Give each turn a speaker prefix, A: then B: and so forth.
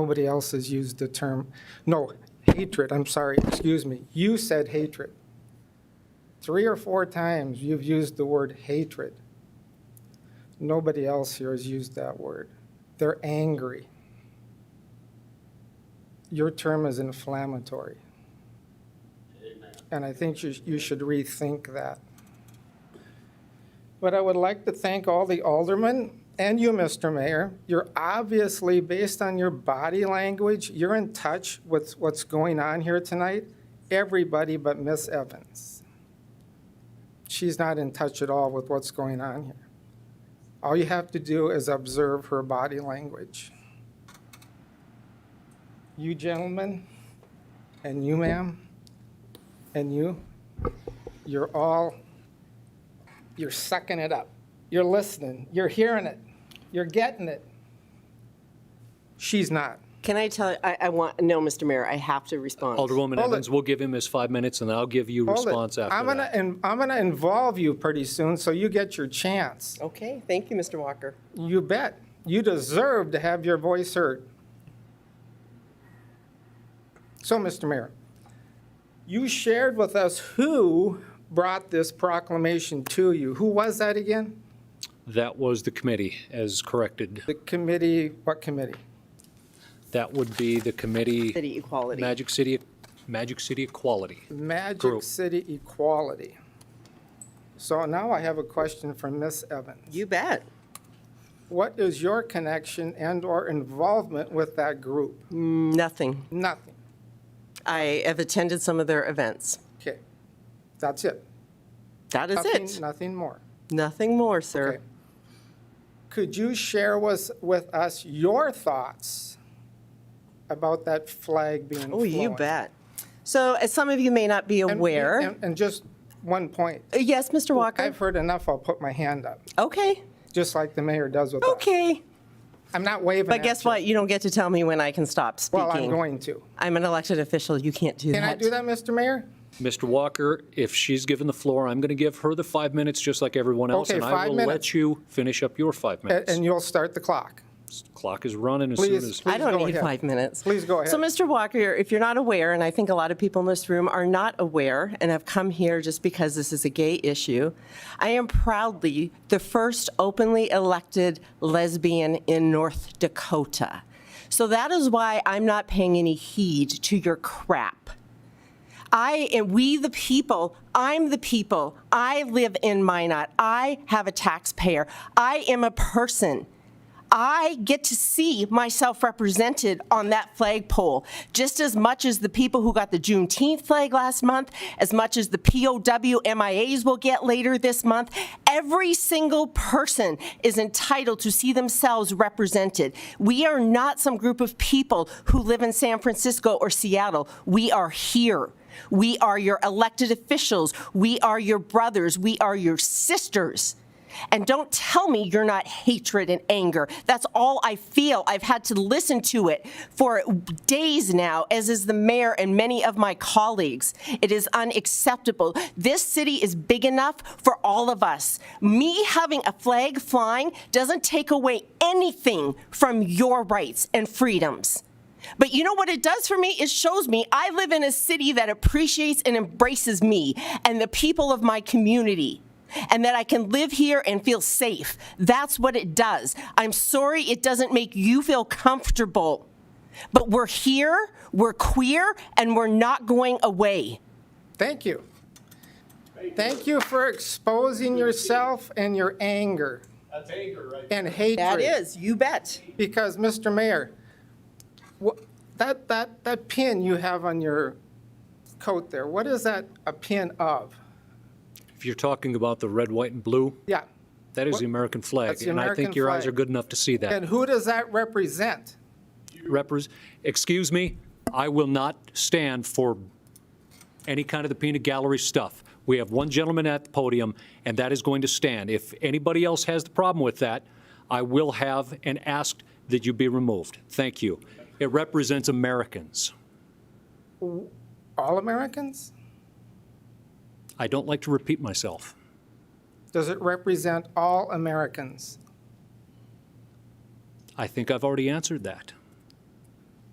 A: Nobody else has used the term, no, hatred, I'm sorry, excuse me. You said hatred. Three or four times you've used the word hatred. Nobody else here has used that word. They're angry. Your term is inflammatory. And I think you, you should rethink that. But I would like to thank all the aldermen and you, Mr. Mayor. You're obviously, based on your body language, you're in touch with what's going on here tonight. Everybody but Miss Evans. She's not in touch at all with what's going on here. All you have to do is observe her body language. You gentlemen, and you ma'am, and you, you're all you're sucking it up. You're listening. You're hearing it. You're getting it. She's not.
B: Can I tell, I, I want, no, Mr. Mayor, I have to respond.
C: Alderwoman
A: Hold it.
C: Evans, we'll give him his five minutes, and I'll give you
A: Hold it.
C: response
A: I'm
C: after
A: gonna,
C: that.
A: and I'm gonna involve you pretty soon, so you get your chance.
B: Okay, thank you, Mr. Walker.
A: You bet. You deserve to have your voice heard. So, Mr. Mayor, you shared with us who brought this proclamation to you. Who was that again?
C: That was the committee, as corrected.
A: The committee, what committee?
C: That would be the committee,
B: City equality.
C: Magic City, Magic City Equality.
A: Magic
C: Group.
A: City Equality. So now I have a question for Ms. Evans.
B: You bet.
A: What is your connection and/or involvement with that group?
B: Mm, Nothing.
A: Nothing.
B: I have attended some of their events.
A: Okay, that's it.
B: That is
A: Nothing-
B: it.
A: Nothing more.
B: Nothing more,
A: Okay.
B: sir.
A: Could you share with, with us your thoughts about that flag being flown?
B: Oh, you bet. So as some of you may not be
A: And-
B: aware,
A: and- And just one point.
B: Uh, yes, Mr. Walker?
A: I've heard enough, I'll put my hand up,
B: Okay,
A: just like the mayor does with us.
B: okay.
A: I'm not waving
B: But guess
A: at you.
B: what? You don't get to tell me when I can stop speaking.
A: Well, I'm going to.
B: I'm an elected official. You can't do that.
A: Can I do that, Mr. Mayor?
C: Mr. Walker, if she's given the floor, I'm going to give her the five minutes, just like everyone else,
A: Okay,
C: and I
A: five
C: will let
A: minutes.
C: you finish up your five
A: A-
C: minutes.
A: And you'll start the clock.
C: Clock is running as soon
A: Please,
C: as,
A: please.
B: I don't
A: go
B: need
A: ahead.
B: five minutes.
A: Please go
B: So,
A: ahead.
B: Mr. Walker, if you're not aware, and I think a lot of people in this room are not aware and have come here just because this is a gay issue, I am proudly the first openly elected lesbian in North Dakota. So that is why I'm not paying any heed to your crap. I and we the people, I'm the people. I live in Minot. I have a taxpayer. I am a person. I get to see myself represented on that flagpole just as much as the people who got the Juneteenth flag last month, as much as the POW MIAs will get later this month. Every single person is entitled to see themselves represented. We are not some group of people who live in San Francisco or Seattle. We are here. We are your elected officials. We are your brothers. We are your sisters. And don't tell me you're not hatred and anger. That's all I feel. I've had to listen to it for days now, as is the mayor and many of my colleagues. It is unacceptable. This city is big enough for all of us. Me having a flag flying doesn't take away anything from your rights and freedoms. But you know what it does for me? It shows me I live in a city that appreciates and embraces me and the people of my community. And that I can live here and feel safe. That's what it does. I'm sorry it doesn't make you feel comfortable, but we're here, we're queer, and we're not going away.
A: Thank you. Thank you for exposing yourself and your anger
D: That's anger right
A: and hatred.
B: you bet.
A: Because, Mr. Mayor, wha- that, that, that pin you have on your coat there, what is that a pin of?
C: if you're talking about the red, white, and blue,
A: Yeah.
C: that is the American flag.
A: That's the
C: And I think
A: American
C: your eyes
A: flag.
C: are good enough to see that.
A: And who does that represent?
C: repres, excuse me, I will not stand for any kind of the peanut gallery stuff. We have one gentleman at the podium, and that is going to stand. If anybody else has the problem with that, I will have and ask that you be removed. Thank you. It represents Americans.
A: All Americans?
C: I don't like to repeat myself.
A: Does it represent all Americans?
C: I think I've already answered that.